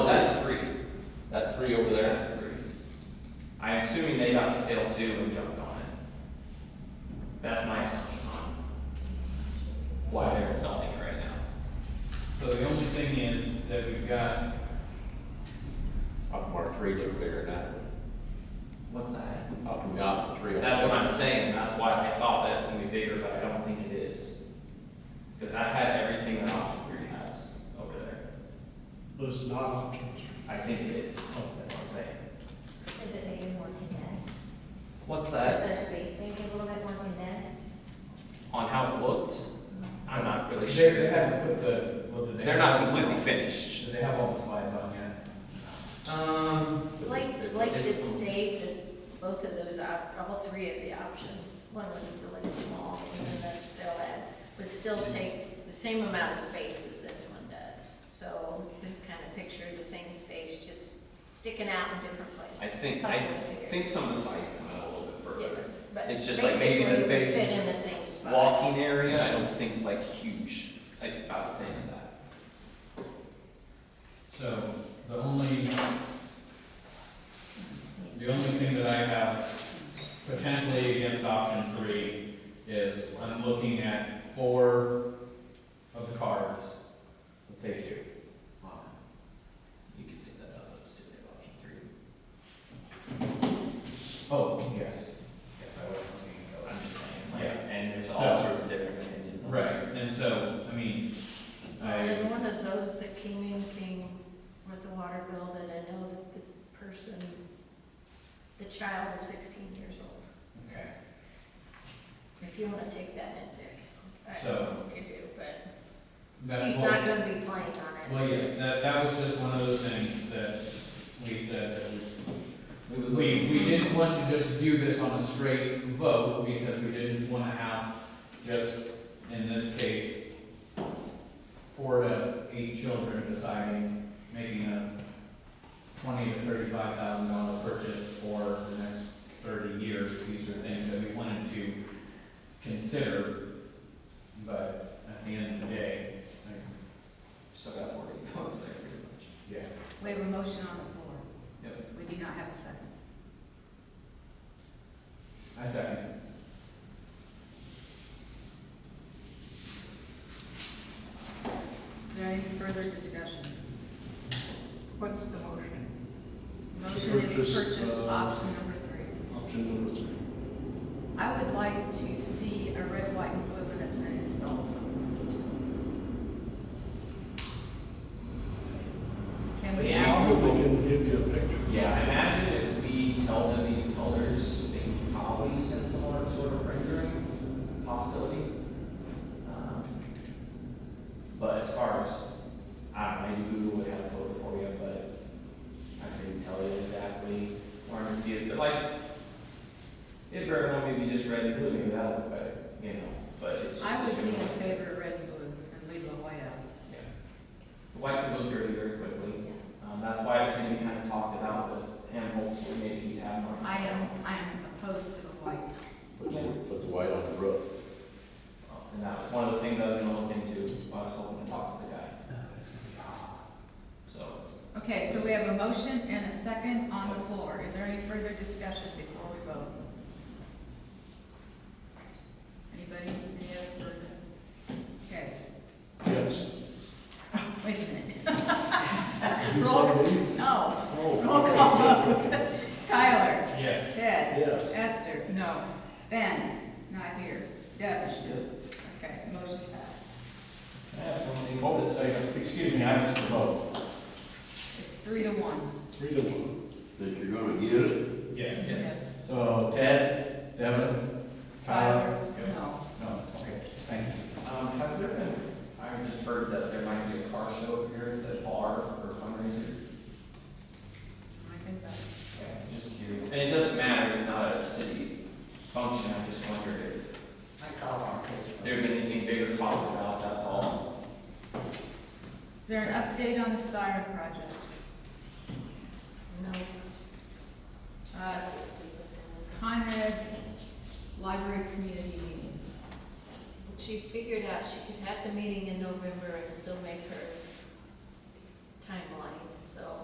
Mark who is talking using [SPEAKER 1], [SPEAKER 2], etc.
[SPEAKER 1] assuming they got the sale too and jumped on it. That's my assumption on why they're installing it right now.
[SPEAKER 2] So the only thing is that we've got,
[SPEAKER 3] Up Mark three, they're figuring that,
[SPEAKER 1] What's that?
[SPEAKER 3] up and down for three.
[SPEAKER 1] That's what I'm saying, that's why I thought that was gonna be bigger, but I don't think it is. Cause that had everything that option three has over there.
[SPEAKER 4] but it's not options.
[SPEAKER 1] I think it is, that's what I'm saying.
[SPEAKER 5] Is it maybe more condensed?
[SPEAKER 1] What's
[SPEAKER 5] Is
[SPEAKER 1] that?
[SPEAKER 5] their space maybe a little bit more condensed?
[SPEAKER 1] On how it looked, I'm not really
[SPEAKER 2] they, they
[SPEAKER 1] sure.
[SPEAKER 2] haven't put the, what did they?
[SPEAKER 1] They're not completely finished.
[SPEAKER 2] Do they have all the slides on yet?
[SPEAKER 1] Um,
[SPEAKER 6] Like, like it
[SPEAKER 1] It's-
[SPEAKER 6] state that both of those, op- all three of the options, one was really small, was in the sale ad, would still take the same amount of space as this one does. So this kind of picture, the same space, just sticking out in different places.
[SPEAKER 1] I think, I think some of the sites come out a little bit
[SPEAKER 6] Yeah,
[SPEAKER 1] further.
[SPEAKER 6] but
[SPEAKER 1] It's just like maybe the
[SPEAKER 6] basically it would
[SPEAKER 1] base
[SPEAKER 6] Fit in the same spot.
[SPEAKER 1] Walking area, I don't think's like huge, like about the same as that.
[SPEAKER 2] So the only, the only thing that I have potentially against option three is I'm looking at four of the cards, let's say two.
[SPEAKER 1] Um, You can see that out of those two, they have option three.
[SPEAKER 2] Oh, yes, yes, I was looking at those.
[SPEAKER 1] I'm just saying, like,
[SPEAKER 2] Yeah.
[SPEAKER 1] and there's
[SPEAKER 2] So-
[SPEAKER 1] all sorts of different opinions on
[SPEAKER 2] Right,
[SPEAKER 1] this.
[SPEAKER 2] and so, I mean, I,
[SPEAKER 6] And one of those that came in came with the water bill that I know that the person, the child is sixteen years old.
[SPEAKER 2] okay,
[SPEAKER 6] If you wanna take that into, I don't
[SPEAKER 2] So-
[SPEAKER 6] know what you do, but
[SPEAKER 2] that's
[SPEAKER 6] she's
[SPEAKER 2] what.
[SPEAKER 6] not gonna be playing on it.
[SPEAKER 2] Well, yes, that, that was just one of those things that we said, that we, we didn't want to just do this on a straight vote, because we didn't wanna have just, in this case, four to eight children deciding, making a twenty to thirty-five thousand dollar purchase for the next thirty years, these are things that we wanted to consider, but at the end of the day, like,
[SPEAKER 1] Still got forty votes there pretty much.
[SPEAKER 2] yeah,
[SPEAKER 7] We have a motion on the floor.
[SPEAKER 2] Yep.
[SPEAKER 7] We do not have a second.
[SPEAKER 2] I second.
[SPEAKER 7] Is there any further discussion? What's the motion? Motion is
[SPEAKER 4] Purchase,
[SPEAKER 7] purchase
[SPEAKER 4] uh,
[SPEAKER 7] option number three.
[SPEAKER 4] Option number three.
[SPEAKER 7] I would like to see a red, white, and blue one that's been installed somewhere. Can we
[SPEAKER 4] I
[SPEAKER 7] ask?
[SPEAKER 4] Probably can give you a picture.
[SPEAKER 1] Yeah, I imagine if we tell them these colors, they can probably send some sort of rendering, it's a possibility. Um, But as far as, I don't know, maybe Google would have a photo for you, but I couldn't tell you exactly where I'm gonna see it, but like, it very well maybe just red and blue, maybe that'll look better, you know, but it's just.
[SPEAKER 7] I
[SPEAKER 1] a
[SPEAKER 7] would be in
[SPEAKER 1] general-
[SPEAKER 7] favor of red and blue and leave the white out.
[SPEAKER 1] Yeah. The White could look dirty very quickly.
[SPEAKER 5] Yeah.
[SPEAKER 1] Um, that's why it can be kind of talked about, but and hopefully maybe you have more.
[SPEAKER 7] I am, I am opposed to the white.
[SPEAKER 3] Put the, put the white on the roof.
[SPEAKER 1] And that was one of the things I was gonna look into, while I was hoping to talk to the guy. So,
[SPEAKER 7] Okay, so we have a motion and a second on the floor. Is there any further discussion before we vote? Anybody, any other further? Okay,
[SPEAKER 4] Yes.
[SPEAKER 7] wait a minute.
[SPEAKER 4] You
[SPEAKER 7] Roll-
[SPEAKER 4] saw me?
[SPEAKER 7] No,
[SPEAKER 4] Oh.
[SPEAKER 7] roll call vote. Tyler,
[SPEAKER 2] Yes.
[SPEAKER 7] Ted,
[SPEAKER 4] Yes.
[SPEAKER 7] Esther, no. Ben, not here. Deb,
[SPEAKER 1] can
[SPEAKER 7] okay, motion passed.
[SPEAKER 1] I ask one thing?
[SPEAKER 8] Hold it, say, excuse me, I missed the vote.
[SPEAKER 7] It's three to one.
[SPEAKER 4] Three to one.
[SPEAKER 3] That you're gonna get it.
[SPEAKER 2] Yes.
[SPEAKER 1] Yes.
[SPEAKER 4] Uh,
[SPEAKER 8] So Ted, Devin, Tyler?
[SPEAKER 7] Tyler, no.
[SPEAKER 8] No, okay, thank you.
[SPEAKER 1] Um, has there been, I just heard that there might be a car show up here, the bar or fundraiser.
[SPEAKER 7] I think that's.
[SPEAKER 1] Okay, just curious. And it doesn't matter, it's not a city function, I just wondered if
[SPEAKER 7] I saw it on Facebook.
[SPEAKER 1] there's been anything bigger talked about, that's all.
[SPEAKER 7] Is there an update on the siren project?
[SPEAKER 6] No,
[SPEAKER 7] Uh, Conrad Library Community Meeting.
[SPEAKER 6] she figured out she could have the meeting in November and still make her